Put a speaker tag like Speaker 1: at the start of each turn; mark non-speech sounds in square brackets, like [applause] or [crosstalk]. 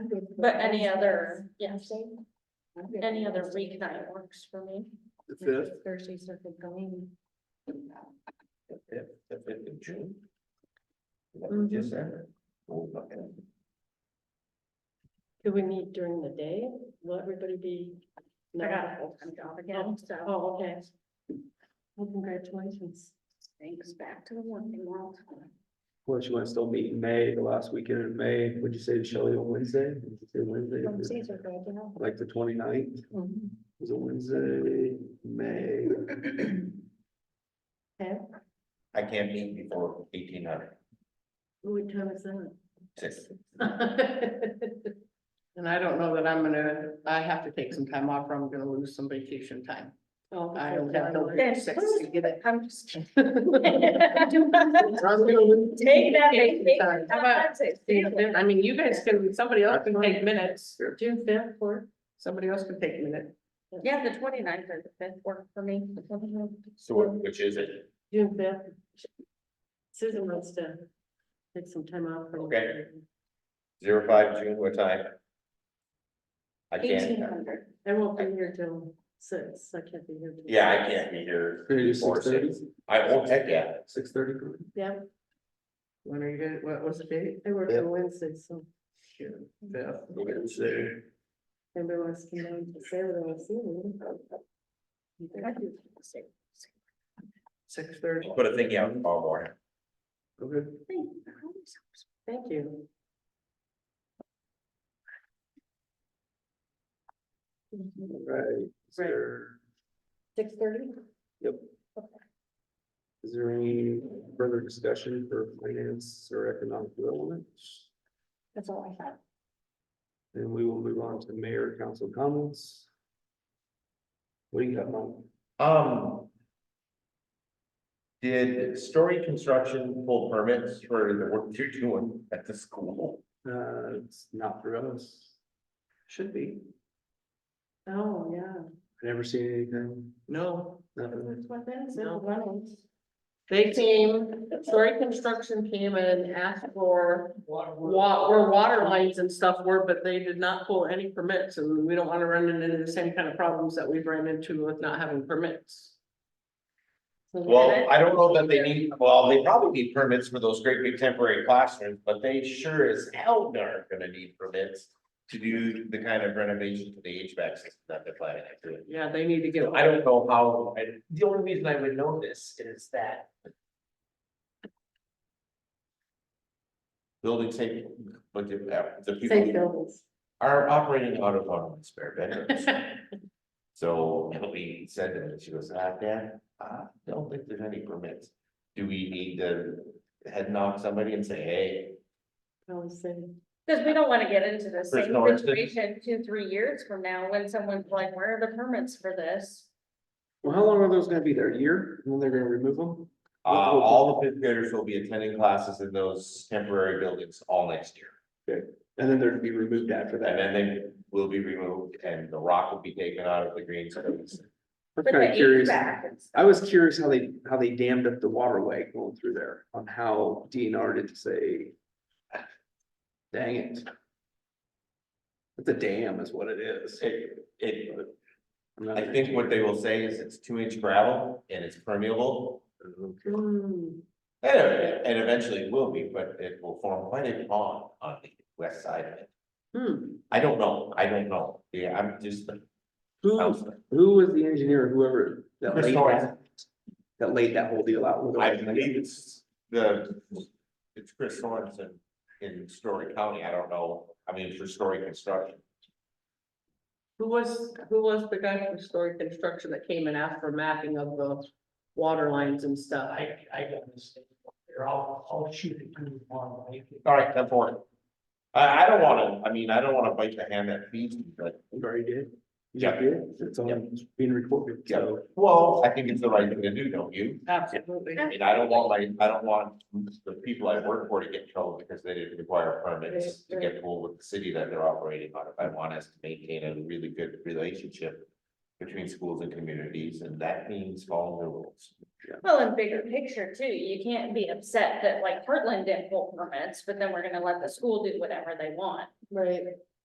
Speaker 1: But any other, yeah, any other weeknight works for me.
Speaker 2: The fifth,
Speaker 1: Thursday circuit going.
Speaker 3: The fifth, the fifth of June. Is that what
Speaker 1: Mhm.
Speaker 3: you said? Oh, okay.
Speaker 4: Do we meet during the day? Will everybody be?
Speaker 1: I
Speaker 4: No.
Speaker 1: got a full-time job again, so
Speaker 4: Oh, okay. Well, congratulations.
Speaker 1: things back to the working world.
Speaker 2: of course, you want to still meet in May, the last weekend in May, would you say to Shelley on Wednesday? Would you say Wednesday?
Speaker 1: Wednesdays are good, you know.
Speaker 2: Like the 29th. is it Wednesday, May?
Speaker 3: I can't meet before eighteen hundred,
Speaker 4: What time is
Speaker 1: [laughs]
Speaker 4: that?
Speaker 3: six,
Speaker 4: And I don't know that I'm gonna, I have to take some time off, or I'm gonna lose some vacation time. Oh. I don't have no.
Speaker 1: Okay.
Speaker 4: six to get [laughs] it.
Speaker 1: I'm just kidding. [laughs]
Speaker 4: I'm gonna lose-
Speaker 1: Take that vacation.
Speaker 4: How about June
Speaker 1: Sometimes
Speaker 4: fifth? I mean, you guys can, somebody else can take minutes, June fifth, or somebody else can take a minute.
Speaker 1: it's- Yeah, the 29th or the fifth work for me.
Speaker 3: so what- which is it?
Speaker 4: June fifth. Susan wants to take some time off.
Speaker 3: Okay. Zero five June, what time? I
Speaker 1: Eighteen
Speaker 3: can't,
Speaker 1: hundred.
Speaker 4: I won't be here till six, I can't be here. till
Speaker 3: yeah, I
Speaker 4: six.
Speaker 3: can't be here
Speaker 2: Can you do
Speaker 3: before
Speaker 2: six thirty? Oh,
Speaker 3: six, I won't heck yeah,
Speaker 2: Six thirty?
Speaker 4: Yeah. When are you gonna, what was the date? I work
Speaker 2: Fifth.
Speaker 4: on Wednesday, so
Speaker 2: Yeah. Wednesday.
Speaker 4: everybody wants to know to say what I was seeing.
Speaker 2: Six thirty.
Speaker 3: put a thing out tomorrow morning.
Speaker 2: Okay.
Speaker 4: Thank you.
Speaker 2: All Right. Is
Speaker 4: Right.
Speaker 2: there-
Speaker 4: Six thirty?
Speaker 2: Is there any further discussion for finance or economic development?
Speaker 1: That's all I have.
Speaker 2: Then we will move on to mayor council comments. What do you got, Mike?
Speaker 3: Um. Did Story Construction pull permits for the work you're doing at the school?
Speaker 2: Uh, it's not for us. Should be.
Speaker 4: Oh, yeah.
Speaker 2: Never seen anything,
Speaker 4: No.
Speaker 2: nothing.
Speaker 4: No. They came, Story Construction came and asked for wa- where water lines and stuff were, but they did not pull any permits, and we don't wanna run into the same kind of problems that we've ran into with not having permits. So-
Speaker 3: Well, I don't know that they need, well, they probably need permits for those great big temporary classrooms, but they sure as hell aren't gonna need permits. To do the kind of renovation to the HVAC system that they're planning on doing.
Speaker 4: Yeah, they need to get.
Speaker 3: I don't know how, I, the only reason I would know this is that. Building safety, but the, the
Speaker 4: Safe
Speaker 3: people
Speaker 4: buildings.
Speaker 3: are operating out of our spare bedrooms. So Hillary said to me, she goes, ah, Dad, I don't think there's any permits. Do we need to head knock somebody and say, hey,
Speaker 4: Always say,
Speaker 1: Because we don't want to get into the same
Speaker 3: no instance.
Speaker 1: situation two, three years from now when someone's like, where are the permits for this?
Speaker 2: Well, how long are those gonna be there? A year? And then they're gonna remove them?
Speaker 3: uh, all the fifth graders will be attending classes in those temporary buildings all next year.
Speaker 2: And then they're to be removed after
Speaker 3: And
Speaker 2: that.
Speaker 3: then they will be removed and the rock will be taken out of the green space.
Speaker 2: I'm
Speaker 1: With the
Speaker 2: kind of curious.
Speaker 1: HVAC and stuff.
Speaker 2: I was curious how they, how they dammed up the waterway going through there, on how DNR did say. Dang it. It's a dam is what it is.
Speaker 3: It, it,
Speaker 2: I'm not
Speaker 3: I think what they will say is it's two inch gravel and it's permeable.
Speaker 2: Okay.
Speaker 4: hmm,
Speaker 3: And, it- and eventually it will be, but it will form quite a pond on the west side of it.
Speaker 4: hmm.
Speaker 3: I don't know, I don't know, yeah, I'm just.
Speaker 2: Who, who was the engineer, whoever that
Speaker 3: Chris
Speaker 2: laid
Speaker 3: Torrance.
Speaker 2: that? That laid that whole deal out.
Speaker 3: I believe it's the, it's Chris Sorensen in Story County, I don't know, I mean, for Story Construction.
Speaker 4: Who was, who was the guy from Story Construction that came and asked for mapping of the water lines and stuff? I,
Speaker 5: I got this thing. Here, I'll, I'll shoot it through tomorrow. right?
Speaker 3: All right, come forward. I, I don't wanna, I mean, I don't wanna bite the hand that feeds me, but,
Speaker 2: You already did. You
Speaker 3: Yeah.
Speaker 2: did. It's all being recorded, so.
Speaker 3: well, I think it's the right thing to do, don't you?
Speaker 4: Absolutely.
Speaker 3: I mean, I don't want my, I don't want the people I work for to get in trouble because they didn't require permits to get full with the city that they're operating on. If I want us to maintain a really good relationship between schools and communities, and that means following the rules.
Speaker 1: Well, in bigger picture too, you can't be upset that like Heartland didn't pull permits, but then we're gonna let the school do whatever they want.
Speaker 4: Right.